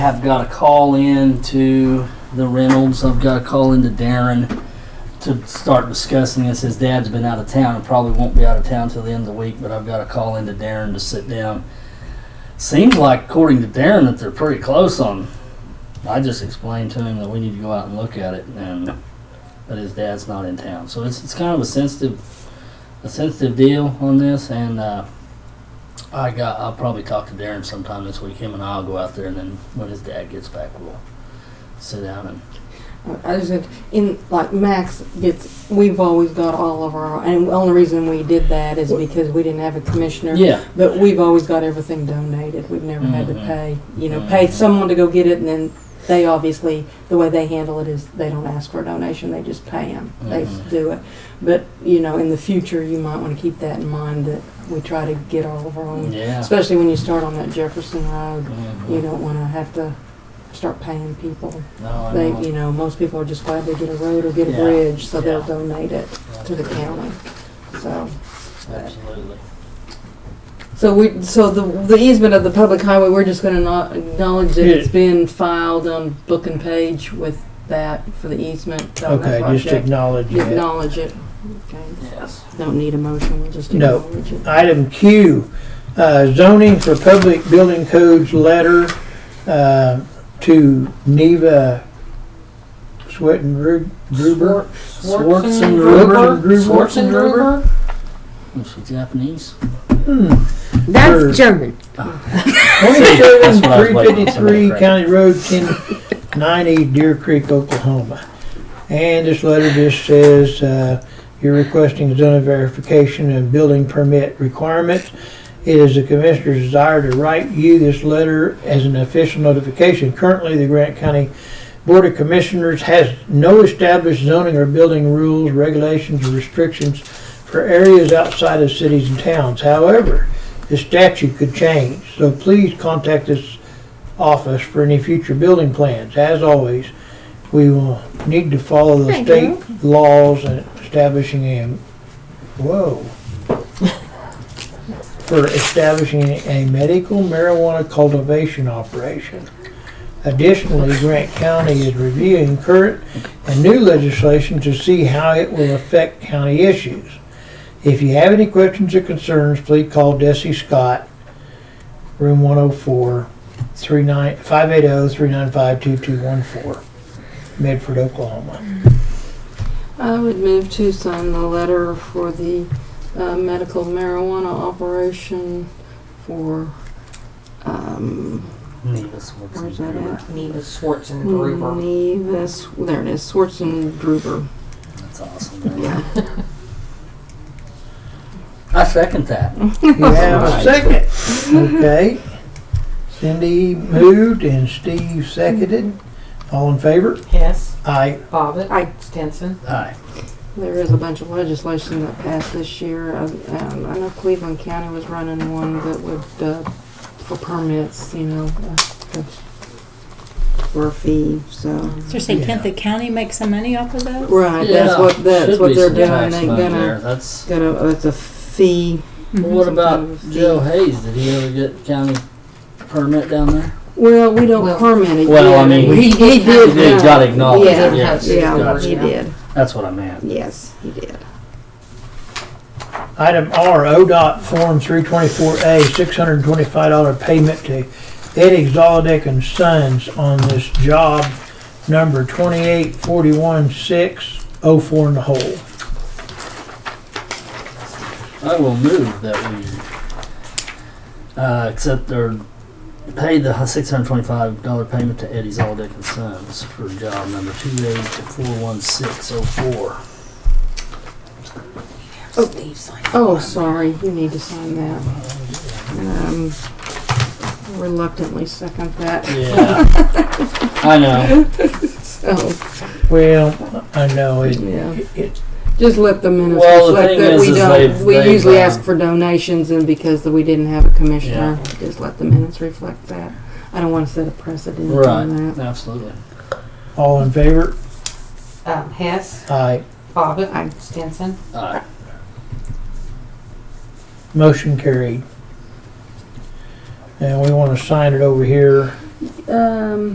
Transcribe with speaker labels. Speaker 1: have got to call in to the Reynolds. I've got to call in to Darren to start discussing this. His dad's been out of town and probably won't be out of town till the end of the week, but I've got to call in to Darren to sit down. Seems like, according to Darren, that they're pretty close on. I just explained to him that we need to go out and look at it, and but his dad's not in town, so it's it's kind of a sensitive a sensitive deal on this, and uh, I got. I'll probably talk to Darren sometime this week. Him and I'll go out there, and then when his dad gets back, we'll sit down and
Speaker 2: I just said, in like Max gets. We've always got all of our, and the only reason we did that is because we didn't have a commissioner.
Speaker 1: yeah,
Speaker 2: But we've always got everything donated. We've never had to
Speaker 1: Mhm.
Speaker 2: pay, you know, pay
Speaker 1: Mhm.
Speaker 2: someone to go get it, and then they obviously the way they handle it is they don't ask for a donation; they just pay them. They
Speaker 1: Mhm.
Speaker 2: do it. But you know, in the future, you might want to keep that in mind that we try to get all of our own,
Speaker 1: yeah.
Speaker 2: especially when you start on that Jefferson Road.
Speaker 1: Mhm.
Speaker 2: You don't want to have to start paying people.
Speaker 1: No, I
Speaker 2: They,
Speaker 1: know.
Speaker 2: you know, most people are just glad they get a road or get a
Speaker 1: Yeah.
Speaker 2: bridge, so they'll
Speaker 1: Yeah.
Speaker 2: donate it to the county. So,
Speaker 1: Absolutely.
Speaker 2: so we, so the, the easement of the public highway, we're just gonna not acknowledge that it's
Speaker 3: Yeah.
Speaker 2: been filed on book and page with that for the easement. on that
Speaker 3: Okay, just
Speaker 2: project.
Speaker 3: acknowledge
Speaker 2: You
Speaker 3: it.
Speaker 2: Acknowledge it. Okay,
Speaker 1: Yes.
Speaker 2: don't need a motion, we'll just
Speaker 3: No.
Speaker 2: acknowledge it.
Speaker 3: Item Q, uh, zoning for public building codes letter uh, to Neva Swett and Gru- Gruber.
Speaker 1: Swartz and
Speaker 3: Gruber?
Speaker 1: Gruber.
Speaker 3: Gruber?
Speaker 1: Swartz and Gruber. Is she Japanese?
Speaker 3: Hmm. Sure.
Speaker 4: That's German.
Speaker 1: That's what I was waiting on somebody to
Speaker 3: 27353
Speaker 1: correct.
Speaker 3: County Road 1090 Deer Creek, Oklahoma. And this letter just says, uh, you're requesting zoning verification and building permit requirements. It is the commissioner's desire to write you this letter as an official notification. Currently, the Grant County Board of Commissioners has no established zoning or building rules, regulations, or restrictions for areas outside of cities and towns. However, the statute could change, so please contact this office for any future building plans. As always, we will need to follow the
Speaker 4: Thank
Speaker 3: state laws and establishing a, whoa. For establishing a medical marijuana cultivation operation. Additionally, Grant County is reviewing current and new legislation to see how it will affect county issues. If you have any questions or concerns, please call Desi Scott, room 104, oh, 580-395-2214, Medford, Oklahoma.
Speaker 2: I would move to sign the letter for the uh, medical marijuana operation for, um,
Speaker 1: Neva Swartz and
Speaker 2: Where's that
Speaker 1: Gruber.
Speaker 2: at?
Speaker 5: Neva Swartz and Gruber.
Speaker 2: Nevis, there it is, Swartz and Gruber.
Speaker 1: That's awesome. man.
Speaker 2: Yeah.
Speaker 1: I second that.
Speaker 2: Mm-hmm.
Speaker 3: You have a
Speaker 1: Right.
Speaker 3: second. Okay. Cindy moved and Steve seconded. All in favor?
Speaker 5: Hess,
Speaker 3: Aye.
Speaker 5: Bobbit,
Speaker 2: I-
Speaker 5: Stinson.
Speaker 1: Aye.
Speaker 2: There is a bunch of legislation that passed this year. I- Um, I know Cleveland County was running one that would, uh, for permits, you know, uh, the- for a fee, so.
Speaker 4: So you're saying can't the county make some money off of that?
Speaker 2: Right, that's
Speaker 1: Yeah.
Speaker 2: what, that's
Speaker 1: Should
Speaker 2: what
Speaker 1: be
Speaker 2: they're
Speaker 1: some
Speaker 2: doing.
Speaker 1: tax
Speaker 2: They're
Speaker 1: money
Speaker 2: gonna,
Speaker 1: there. That's.
Speaker 2: gonna, it's a fee.
Speaker 1: Well, what
Speaker 2: Some
Speaker 1: about
Speaker 2: kind of
Speaker 1: Joe
Speaker 2: deed.
Speaker 1: Hayes? Did he ever get county permit down there?
Speaker 2: Well, we don't
Speaker 5: Well-
Speaker 2: permit it
Speaker 1: Well, I
Speaker 2: yet.
Speaker 1: mean,
Speaker 2: He, he
Speaker 1: He
Speaker 2: did.
Speaker 1: did,
Speaker 2: uh,
Speaker 1: got acknowledged.
Speaker 2: Yeah,
Speaker 1: yes,
Speaker 2: Yeah,
Speaker 1: gotcha.
Speaker 2: he did.
Speaker 1: That's what I meant.
Speaker 2: Yes, he did.
Speaker 3: Item R, ODOT Form 324A, $625 payment to Ed Exoldec and Sons on this job number 2841604 in the hole.
Speaker 1: I will move that we uh, accept or pay the six hundred twenty-five dollar payment to Eddie's All Dick and Sons for job number two eight four one six oh four.
Speaker 4: Steve signed.
Speaker 2: Oh, sorry, you need to sign that. Um, reluctantly second that.
Speaker 1: Yeah, I know.
Speaker 2: So,
Speaker 3: Well, I know it,
Speaker 2: yeah.
Speaker 3: it,
Speaker 2: Just let the minutes
Speaker 1: Well, the
Speaker 2: reflect
Speaker 1: thing
Speaker 2: that
Speaker 1: is,
Speaker 2: we
Speaker 1: is
Speaker 2: don't,
Speaker 1: they've-
Speaker 2: we
Speaker 1: they've,
Speaker 2: usually
Speaker 1: uh,
Speaker 2: ask for donations and because we didn't have a commissioner, just let the minutes reflect that. I don't want to set a precedent on
Speaker 1: Right,
Speaker 2: that.
Speaker 1: absolutely.
Speaker 3: all in favor?
Speaker 5: Um, Hess,
Speaker 3: Aye.
Speaker 5: Bobbit,
Speaker 2: Aye.
Speaker 5: Stinson.
Speaker 1: Aye.
Speaker 3: Motion carried. And we want to sign it over here
Speaker 2: Um,